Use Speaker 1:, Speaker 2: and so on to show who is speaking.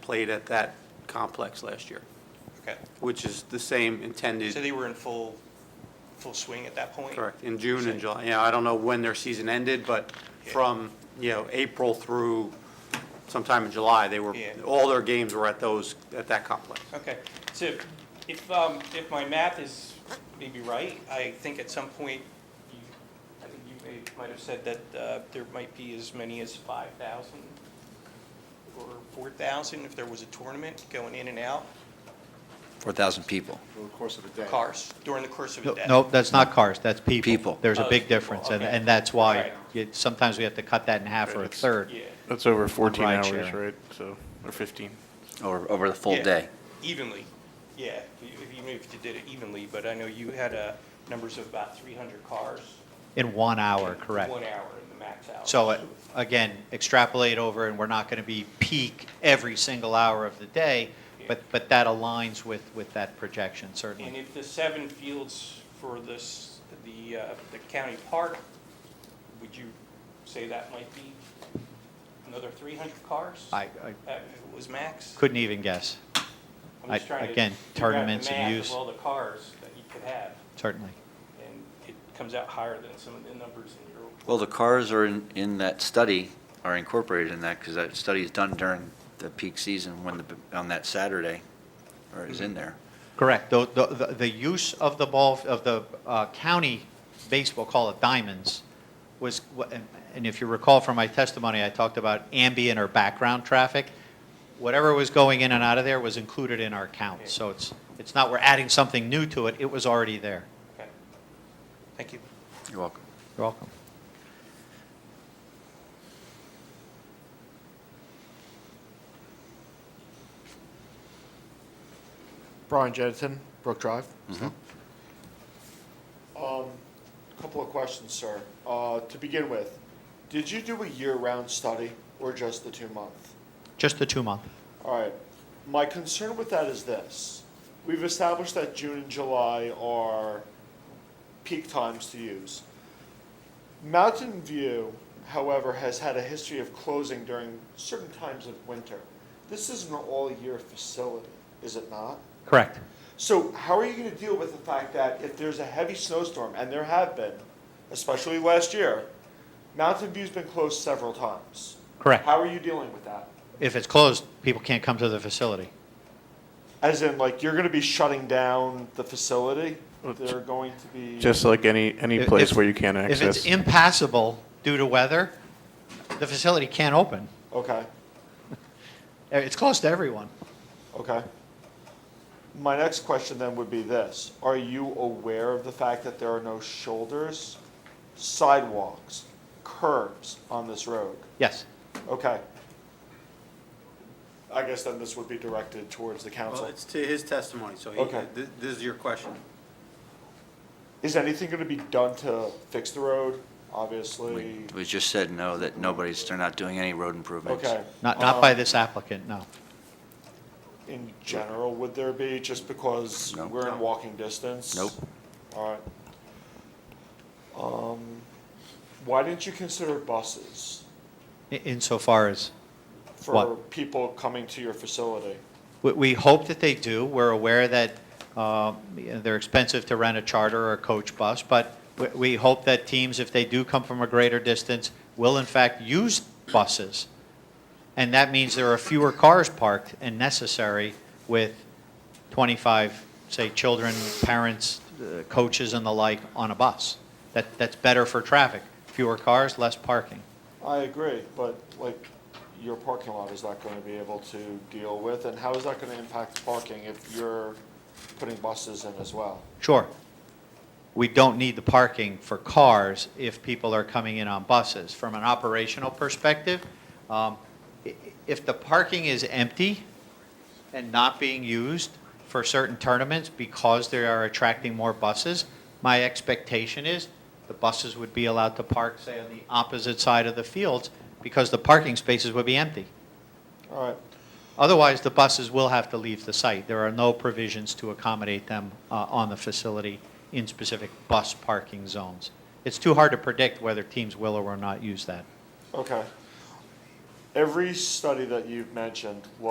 Speaker 1: played at that complex last year,
Speaker 2: Okay,
Speaker 1: which is the same
Speaker 2: so
Speaker 1: intended,
Speaker 2: they were in full, full swing at that point?
Speaker 1: correct, in June and July. You know, I don't know when their season ended, but
Speaker 2: Yeah.
Speaker 1: from, you know, April through sometime in July, they were,
Speaker 2: Yeah.
Speaker 1: all their games were at those, at that complex.
Speaker 2: Okay, so if, um, if my math is maybe right, I think at some point, you, I think you may, might have said that, uh, there might be as many as five thousand or four thousand if there was a tournament going in and out,
Speaker 3: 4,000 people.
Speaker 4: over the course of a day.
Speaker 2: cars, during the course of a
Speaker 5: No,
Speaker 2: day.
Speaker 5: no, that's not cars, that's people.
Speaker 3: People.
Speaker 5: There's
Speaker 2: Oh,
Speaker 5: a big
Speaker 2: people,
Speaker 5: difference, and,
Speaker 2: okay.
Speaker 5: and that's
Speaker 2: Right.
Speaker 5: why you- sometimes we have to cut that in half or a third.
Speaker 2: Yeah,
Speaker 6: That's over 14
Speaker 5: Ride
Speaker 6: hours,
Speaker 5: share.
Speaker 6: right? So, or 15.
Speaker 3: Over, over the full
Speaker 2: Yeah.
Speaker 3: day.
Speaker 2: evenly, yeah, if you- if you moved, you did it evenly, but I know you had, uh, numbers of about three hundred cars.
Speaker 5: In one hour, correct.
Speaker 2: One hour in the max hour.
Speaker 5: So, uh, again, extrapolate over, and we're not going to be peak every single hour of the day, but, but that aligns with, with that projection,
Speaker 2: And
Speaker 5: certainly.
Speaker 2: if the seven fields for this, the, uh, the county park, would you say that might be another three hundred cars?
Speaker 5: I, I
Speaker 2: That was max?
Speaker 5: couldn't even guess,
Speaker 2: I'm just
Speaker 5: I-
Speaker 2: trying to
Speaker 5: again,
Speaker 2: figure out the
Speaker 5: tournaments and
Speaker 2: math of
Speaker 5: use.
Speaker 2: all the cars that you could have,
Speaker 5: certainly.
Speaker 2: and it comes out higher than some of the numbers in your.
Speaker 3: Well, the cars are in, in that study, are incorporated in that, because that study is done during the peak season when the, on that Saturday, or is in there.
Speaker 5: Correct. The, the- the, the use of the ball, of the uh, county baseball, call it diamonds, was, and if you recall from my testimony, I talked about ambient or background traffic. Whatever was going in and out of there was included in our count. So it's, it's not we're adding something new to it, it was already there.
Speaker 2: Okay. Thank you.
Speaker 3: You're welcome.
Speaker 5: You're welcome.
Speaker 4: Brian Jennison, Brook Drive. Um, couple of questions, sir. Uh, to begin with, did you do a year-round study or just the two-month?
Speaker 5: Just the two-month.
Speaker 4: All right. My concern with that is this. We've established that June and July are peak times to use. Mountain View, however, has had a history of closing during certain times of winter. This is an all-year facility, is it not?
Speaker 5: Correct.
Speaker 4: So how are you going to deal with the fact that if there's a heavy snowstorm, and there have been, especially last year, Mountain View's been closed several times?
Speaker 5: Correct.
Speaker 4: How are you dealing with that?
Speaker 5: If it's closed, people can't come to the facility.
Speaker 4: As in, like, you're going to be shutting down the facility?
Speaker 6: Well, j-
Speaker 4: They're going to be.
Speaker 6: Just like any, any
Speaker 5: If-
Speaker 6: place
Speaker 5: if-
Speaker 6: where you can't
Speaker 5: If it's
Speaker 6: access.
Speaker 5: impassable due to weather, the facility can't open. Uh,
Speaker 4: Okay,
Speaker 5: It's closed to everyone.
Speaker 4: okay. My next question then would be this Are you aware of the fact that there are no shoulders, sidewalks, curbs on this road?
Speaker 5: Yes.
Speaker 4: Okay. I guess then this would be directed towards the
Speaker 1: Well,
Speaker 4: council.
Speaker 1: it's to his testimony, so he,
Speaker 4: Okay.
Speaker 1: th- this is your question.
Speaker 4: Is anything going to be done to fix the road? Obviously.
Speaker 3: We, we just said no, that nobody's, they're not doing any road improvements.
Speaker 4: Okay.
Speaker 5: Not, not by
Speaker 4: Um,
Speaker 5: this applicant, no.
Speaker 4: In general, would there be, just because
Speaker 3: No.
Speaker 4: we're in walking distance?
Speaker 3: Nope.
Speaker 4: All right. Um, Why didn't you consider buses
Speaker 5: I- Insofar as,
Speaker 4: for
Speaker 5: What?
Speaker 4: people coming to your facility?
Speaker 5: we, we hope that they do. We're aware that um, you know, they're expensive to rent a charter or a coach bus, but we, we hope that teams, if they do come from a greater distance, will in fact use buses. And that means there are fewer cars parked and necessary with 25, say, children, parents, uh, coaches and the like on a bus. That, that's better for traffic. Fewer cars, less parking.
Speaker 4: I agree, but like, your parking lot is not going to be able to deal with, and how is that going to impact parking if you're putting buses in as well?
Speaker 5: Sure. We don't need the parking for cars if people are coming in on buses. From an operational perspective, um, i- if the parking is empty and not being used for certain tournaments because they are attracting more buses, my expectation is the buses would be allowed to park, say, on the opposite side of the fields because the parking spaces would be empty.
Speaker 4: All right,
Speaker 5: Otherwise, the buses will have to leave the site. There are no provisions to accommodate them uh, on the facility in specific bus parking zones. It's too hard to predict whether teams will or will not use that.
Speaker 4: okay. Every study that you've mentioned